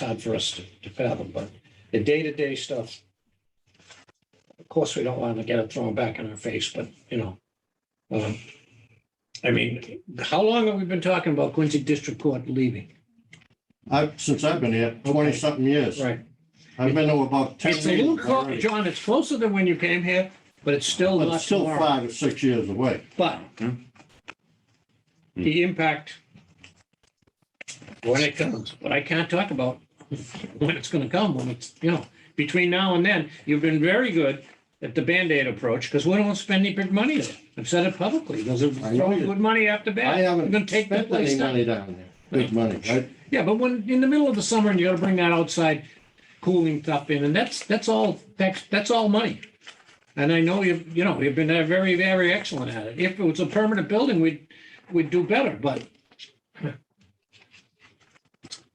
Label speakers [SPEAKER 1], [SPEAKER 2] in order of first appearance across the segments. [SPEAKER 1] hard for us to- to fathom, but the day-to-day stuff. Of course, we don't want to get it thrown back in our face, but you know. um, I mean, how long have we been talking about Quincy District Court leaving?
[SPEAKER 2] I've, since I've been here, twenty something years.
[SPEAKER 1] Right.
[SPEAKER 2] I've been to about ten
[SPEAKER 1] It's a little,
[SPEAKER 2] meetings
[SPEAKER 1] clo-
[SPEAKER 2] already.
[SPEAKER 1] John, it's closer than when you came here, but it's still
[SPEAKER 2] But
[SPEAKER 1] not
[SPEAKER 2] it's still
[SPEAKER 1] tomorrow.
[SPEAKER 2] five or six years away.
[SPEAKER 1] But the impact when it comes, but I can't talk about when it's gonna come, when it's, you know, between now and then, you've been very good at the Band-Aid approach, because we don't spend any big money there. I've said it publicly, those are
[SPEAKER 2] I know
[SPEAKER 1] throwing
[SPEAKER 2] you-
[SPEAKER 1] good money after
[SPEAKER 2] I
[SPEAKER 1] bad. You're gonna
[SPEAKER 2] haven't
[SPEAKER 1] take that
[SPEAKER 2] spent
[SPEAKER 1] place
[SPEAKER 2] any
[SPEAKER 1] down.
[SPEAKER 2] money down there, big money. I-
[SPEAKER 1] Yeah, but when, in the middle of the summer, and you gotta bring that outside cooling stuff in, and that's, that's all, that's, that's all money. And I know you've, you know, you've been uh, very, very excellent at it. If it was a permanent building, we'd, we'd do better, but.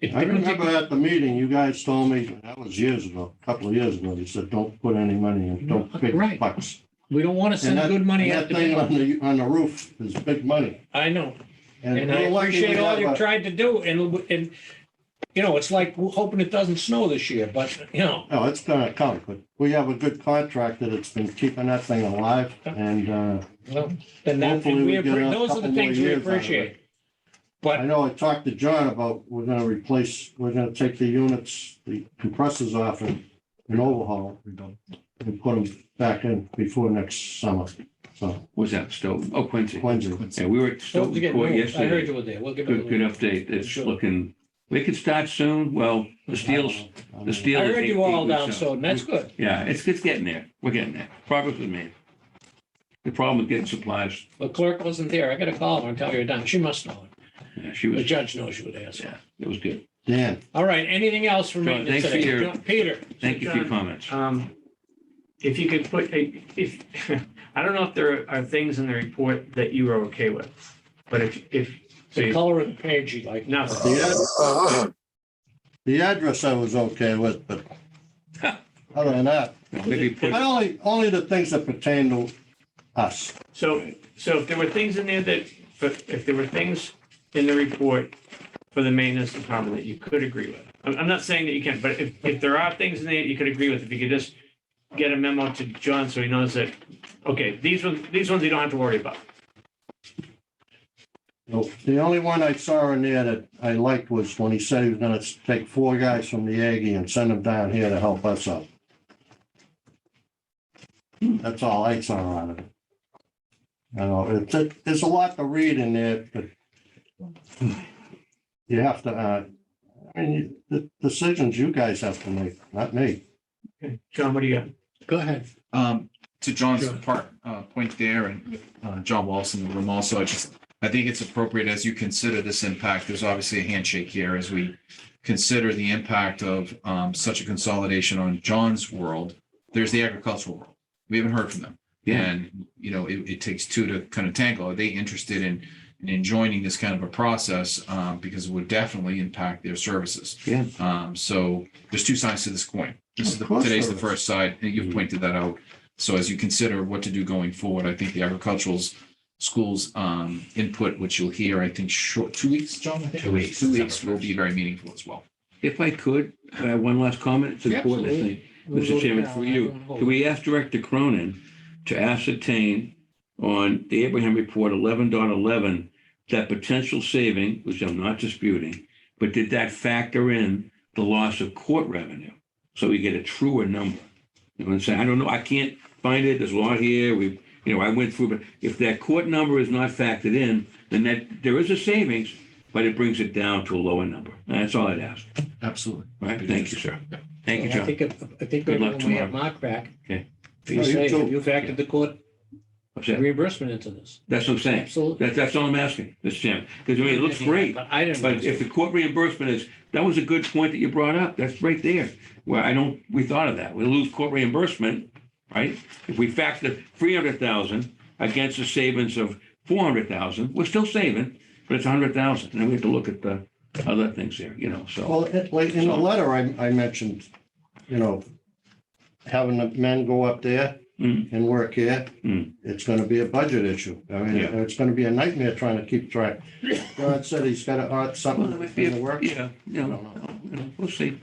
[SPEAKER 1] It-
[SPEAKER 2] I remember at the meeting, you guys told me, that was years ago, a couple of years ago, you said, don't put any money in, don't
[SPEAKER 1] No, right.
[SPEAKER 2] big bucks.
[SPEAKER 1] We don't wanna
[SPEAKER 2] And
[SPEAKER 1] send
[SPEAKER 2] that-
[SPEAKER 1] good money
[SPEAKER 2] and
[SPEAKER 1] out
[SPEAKER 2] That thing
[SPEAKER 1] to
[SPEAKER 2] on the, on the roof is big money.
[SPEAKER 1] I know. And I
[SPEAKER 2] we're lucky we
[SPEAKER 1] appreciate all
[SPEAKER 2] have
[SPEAKER 1] you've
[SPEAKER 2] a-
[SPEAKER 1] tried to do and, and, you know, it's like hoping it doesn't snow this year, but, you know,
[SPEAKER 2] No, Oh, it's gonna come, but we have a good contractor that's been keeping that thing alive and, uh,
[SPEAKER 1] well, then that,
[SPEAKER 2] Hopefully we
[SPEAKER 1] we,
[SPEAKER 2] get a
[SPEAKER 1] appre- those are
[SPEAKER 2] couple
[SPEAKER 1] the
[SPEAKER 2] more
[SPEAKER 1] things we
[SPEAKER 2] years out of it.
[SPEAKER 1] appreciate.
[SPEAKER 2] I know I talked to John about, we're gonna replace, we're gonna take the units, the compressors off and, and overhaul. And put them back in before next summer, so,
[SPEAKER 3] What's that, Stoughton? Oh, Quincy.
[SPEAKER 2] Quincy.
[SPEAKER 3] Yeah, we were at
[SPEAKER 1] Don't
[SPEAKER 3] Stoughton
[SPEAKER 1] forget,
[SPEAKER 3] Court
[SPEAKER 1] Newell. I heard
[SPEAKER 3] yesterday.
[SPEAKER 1] you were there. We'll give it a
[SPEAKER 3] Good,
[SPEAKER 1] little.
[SPEAKER 3] good update. It's
[SPEAKER 1] Sure.
[SPEAKER 3] looking, we could start soon. Well, the steel's, the steel.
[SPEAKER 1] I
[SPEAKER 3] is
[SPEAKER 1] heard
[SPEAKER 3] eight-
[SPEAKER 1] you all
[SPEAKER 3] eight weeks
[SPEAKER 1] down,
[SPEAKER 3] out.
[SPEAKER 1] so that's good.
[SPEAKER 3] Yeah, it's, it's getting there. We're getting there. Progress was made. The problem with getting supplies,
[SPEAKER 1] The clerk wasn't there. I got to call her and tell her you're down. She must know it.
[SPEAKER 3] yeah, she
[SPEAKER 1] The
[SPEAKER 3] was,
[SPEAKER 1] judge knows you were there. so.
[SPEAKER 3] yeah, it was good.
[SPEAKER 2] Dan,
[SPEAKER 1] All right, anything else for
[SPEAKER 3] John,
[SPEAKER 1] me
[SPEAKER 3] thanks for
[SPEAKER 1] today?
[SPEAKER 3] your-
[SPEAKER 1] John- Peter?
[SPEAKER 3] Thank you for your comments.
[SPEAKER 4] Um, if you could put, a- if, I don't know if there are things in the report that you are okay with, but if, if, so
[SPEAKER 1] The
[SPEAKER 4] you,
[SPEAKER 1] color of the page you like.
[SPEAKER 4] no,
[SPEAKER 2] the, ad- the address I was okay with, but other than that,
[SPEAKER 3] Maybe put,
[SPEAKER 2] but only, only the things that pertain to us.
[SPEAKER 4] so, so if there were things in there that, but if there were things in the report for the maintenance department that you could agree with, I'm, I'm not saying that you can't, but if, if there are things in there that you could agree with, if you could just get a memo to John so he knows that, okay, these ones, these ones you don't have to worry about.
[SPEAKER 2] Nope. The only one I saw in there that I liked was when he said he was gonna take four guys from the Aggie and send them down here to help us out. That's all I saw on it. You know, it's, it- there's a lot to read in there, but you have to, uh, I mean, the decisions you guys have to make, not me.
[SPEAKER 4] Okay, John, what do you got?
[SPEAKER 1] Go ahead.
[SPEAKER 5] Um, to John's
[SPEAKER 1] Sure.
[SPEAKER 5] part, uh, point there and, uh, John Wallace in the room also, I just, I think it's appropriate as you consider this impact, there's obviously a handshake here as we consider the impact of, um, such a consolidation on John's world. There's the agricultural world. We haven't heard from them.
[SPEAKER 3] Yeah.
[SPEAKER 5] And, you know, it, it takes two to kind of tangle. Are they interested in, in joining this kind of a process? Um, because it would definitely impact their services.
[SPEAKER 3] Yeah.
[SPEAKER 5] Um, so there's two sides to this coin. This is
[SPEAKER 2] Of
[SPEAKER 5] the,
[SPEAKER 2] course
[SPEAKER 5] today's the
[SPEAKER 2] there is. Mm-hmm.
[SPEAKER 5] first side, and you've pointed that out. So as you consider what to do going forward, I think the agricultural's schools um input, which you'll hear, I think, short, two weeks, John? I think?
[SPEAKER 3] Two weeks.
[SPEAKER 5] Two weeks will be very meaningful as well.
[SPEAKER 3] if I could, I have one last comment. It's important, I
[SPEAKER 1] Absolutely.
[SPEAKER 3] think. Mr. Chairman, for you, can we ask Director Cronin to ascertain on the Abraham Report 11.11 that potential saving, which I'm not disputing, but did that factor in the loss of court revenue? So we get a truer number. You know, and say, I don't know, I can't find it, there's a lot here, we, you know, I went through, but if that court number is not factored in, then that, there is a savings, but it brings it down to a lower number. And That's all I'd ask.
[SPEAKER 5] Absolutely.
[SPEAKER 3] All right, thank you, sir. Thank you,
[SPEAKER 1] I
[SPEAKER 3] John.
[SPEAKER 1] think, if- I think
[SPEAKER 3] Good luck
[SPEAKER 1] when we have Mark back.
[SPEAKER 3] Okay.
[SPEAKER 1] You
[SPEAKER 2] You
[SPEAKER 1] say,
[SPEAKER 2] too.
[SPEAKER 1] you factored the court
[SPEAKER 3] What's that?
[SPEAKER 1] reimbursement into this.
[SPEAKER 3] That's what I'm saying.
[SPEAKER 1] Absolutely.
[SPEAKER 3] That, that's all I'm asking, Mr. Chairman, because I mean, it looks great,
[SPEAKER 1] But I didn't.
[SPEAKER 3] but if the court reimbursement is, that was a good point that you brought up. That's right there. Where I don't, we thought of that. We lose court reimbursement, right? If we factor three hundred thousand against the savings of four hundred thousand, we're still saving, but it's a hundred thousand. And then we have to look at the other things there, you know, so.
[SPEAKER 2] Well, it- like in the letter, I, I mentioned, you know, having the men go up there
[SPEAKER 3] Mm.
[SPEAKER 2] and work here,
[SPEAKER 3] Mm.
[SPEAKER 2] it's gonna be a budget issue. I mean,
[SPEAKER 3] Yeah.
[SPEAKER 2] it's gonna be a nightmare trying to keep track. God said he's gotta add something in the work.
[SPEAKER 3] Yeah, yeah,
[SPEAKER 2] I don't know.
[SPEAKER 3] no, no, we'll see.